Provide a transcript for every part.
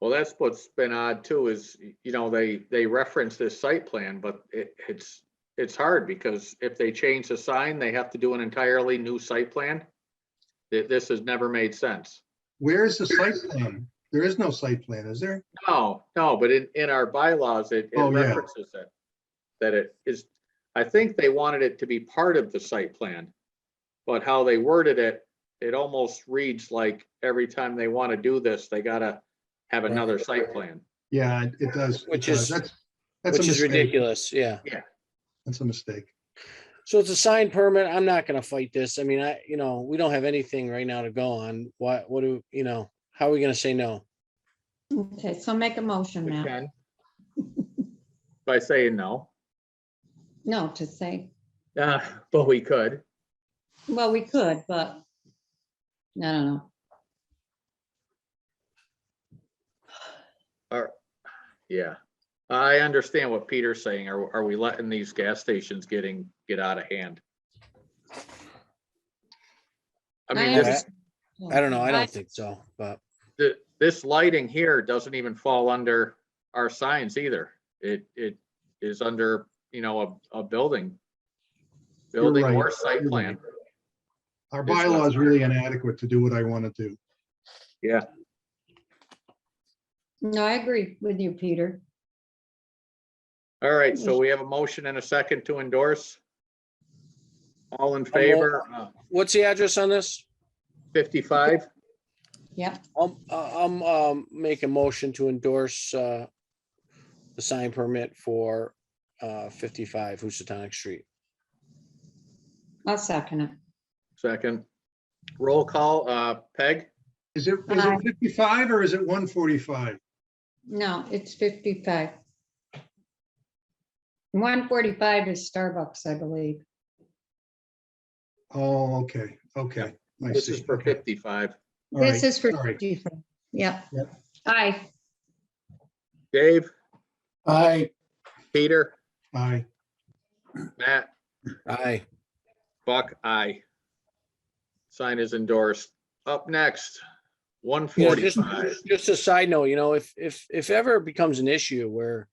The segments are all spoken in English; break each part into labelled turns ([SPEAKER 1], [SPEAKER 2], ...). [SPEAKER 1] Well, that's what's been odd too, is, y- you know, they, they reference this site plan, but it, it's, it's hard because if they change the sign, they have to do an entirely new site plan. Th- This has never made sense.
[SPEAKER 2] Where is the site plan? There is no site plan, is there?
[SPEAKER 1] No, no, but in, in our bylaws, it it
[SPEAKER 2] Oh, yeah.
[SPEAKER 1] references it. That it is, I think they wanted it to be part of the site plan. But how they worded it, it almost reads like every time they want to do this, they gotta have another site plan.
[SPEAKER 2] Yeah, it- it does. it
[SPEAKER 3] Which
[SPEAKER 2] does.
[SPEAKER 3] is-
[SPEAKER 2] That's that's a
[SPEAKER 3] which is
[SPEAKER 2] mistake.
[SPEAKER 3] ridiculous, yeah.
[SPEAKER 2] That's a mistake.
[SPEAKER 3] So it's a sign permit. I'm not gonna fight this. I mean, I, you know, we don't have anything right now to go on. What, what do, you know, how are we gonna say no?
[SPEAKER 4] Okay, so make a motion,
[SPEAKER 1] We
[SPEAKER 4] Matt.
[SPEAKER 1] can. By saying no,
[SPEAKER 4] No, to say,
[SPEAKER 1] uh, but we could.
[SPEAKER 4] well, we could, but I don't know.
[SPEAKER 1] Yeah. I understand what Peter's saying. Are, are we letting these gas stations getting, get out of hand? I mean,
[SPEAKER 4] I
[SPEAKER 1] this,
[SPEAKER 3] I don't know. I don't think so, but
[SPEAKER 1] th- this lighting here doesn't even fall under our signs either. It, it is under, you know, a, a building. Building
[SPEAKER 2] right.
[SPEAKER 1] or site
[SPEAKER 2] You're
[SPEAKER 1] plan.
[SPEAKER 2] Our
[SPEAKER 1] It's not-
[SPEAKER 2] bylaw is really inadequate to do what I want to do.
[SPEAKER 4] No, I agree with you, Peter.
[SPEAKER 1] All right, so we have a motion and a second to endorse. All in
[SPEAKER 3] all-
[SPEAKER 1] favor, uh,
[SPEAKER 3] what's the address on this?
[SPEAKER 1] fifty-five?
[SPEAKER 4] Yep,
[SPEAKER 3] I'll, I'll, um, make a motion to endorse, uh, the sign permit for, uh, fifty-five Housatonic Street.
[SPEAKER 4] I'll second it.
[SPEAKER 1] Second. Roll call, uh, Peg?
[SPEAKER 2] Is it, is
[SPEAKER 4] Aye.
[SPEAKER 2] it 55 or is it 145?
[SPEAKER 4] No, it's fifty-five. One forty-five is Starbucks, I believe.
[SPEAKER 2] Oh, okay, okay. I
[SPEAKER 1] This is
[SPEAKER 2] see.
[SPEAKER 1] for
[SPEAKER 2] Okay.
[SPEAKER 1] fifty-five.
[SPEAKER 2] All right,
[SPEAKER 4] This is for
[SPEAKER 2] all right.
[SPEAKER 4] fifty-five. Yep.
[SPEAKER 2] Yep.
[SPEAKER 4] Aye,
[SPEAKER 1] Dave,
[SPEAKER 5] Aye,
[SPEAKER 1] Peter,
[SPEAKER 2] Aye.
[SPEAKER 1] Matt,
[SPEAKER 3] Aye.
[SPEAKER 1] Buck, I. Sign is endorsed. Up next, one
[SPEAKER 3] Yeah, just,
[SPEAKER 1] forty-five.
[SPEAKER 3] just- just a side note, you know, if, if, if ever it becomes an issue where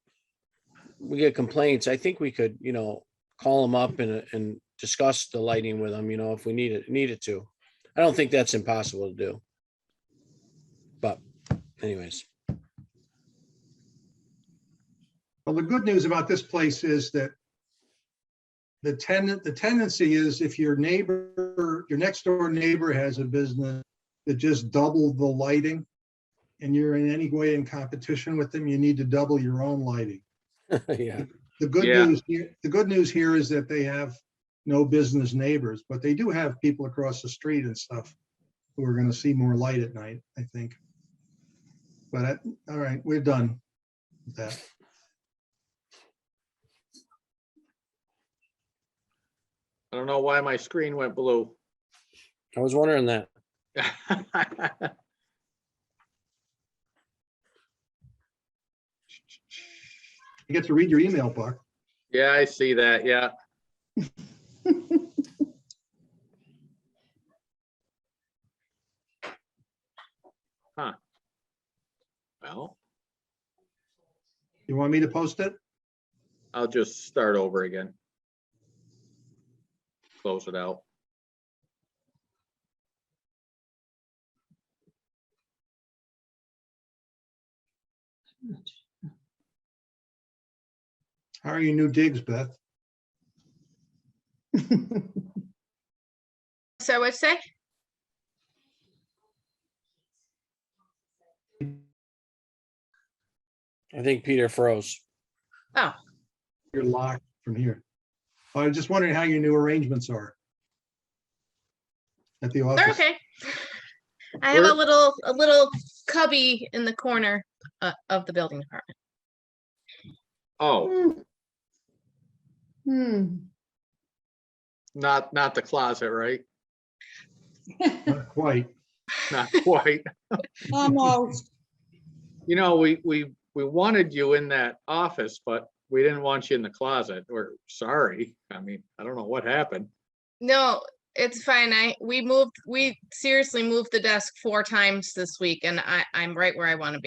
[SPEAKER 3] we get complaints, I think we could, you know, call them up and, and discuss the lighting with them, you know, if we need it, needed to. I don't think that's impossible to do. But anyways,
[SPEAKER 2] Well, the good news about this place is that the tenant, the tendency is if your neighbor, your next door neighbor has a business that just doubled the lighting and you're in any way in competition with them, you need to double your own lighting.
[SPEAKER 3] yeah,
[SPEAKER 2] The good
[SPEAKER 1] Yeah.
[SPEAKER 2] news, here- the good news here is that they have no business neighbors, but they do have people across the street and stuff who are gonna see more light at night, I think. But, I- all right, we're done with that.
[SPEAKER 1] I don't know why my screen went blue.
[SPEAKER 3] I was wondering that.
[SPEAKER 2] You get to read your email, Buck.
[SPEAKER 1] Yeah, I see that, yeah. Huh. Well,
[SPEAKER 2] You want me to post it?
[SPEAKER 1] I'll just start over again. Close it out.
[SPEAKER 2] How are your new digs, Beth?
[SPEAKER 6] So I would say,
[SPEAKER 3] I think Peter froze.
[SPEAKER 2] You're locked from here. I was just wondering how your new arrangements are. At the
[SPEAKER 6] they're
[SPEAKER 2] office.
[SPEAKER 6] okay. I have
[SPEAKER 1] Where-
[SPEAKER 6] a little, a little cubby in the corner uh, of the building department.
[SPEAKER 1] Oh,
[SPEAKER 4] Hmm. Hmm.
[SPEAKER 1] not, not the closet, right?
[SPEAKER 2] Not quite.
[SPEAKER 1] Not quite.
[SPEAKER 4] Almost.
[SPEAKER 1] You know, we, we, we wanted you in that office, but we didn't want you in the closet. We're sorry. I mean, I don't know what happened.
[SPEAKER 6] No, it's fine. I, we moved, we seriously moved the desk four times this week and I, I'm right where I want to be.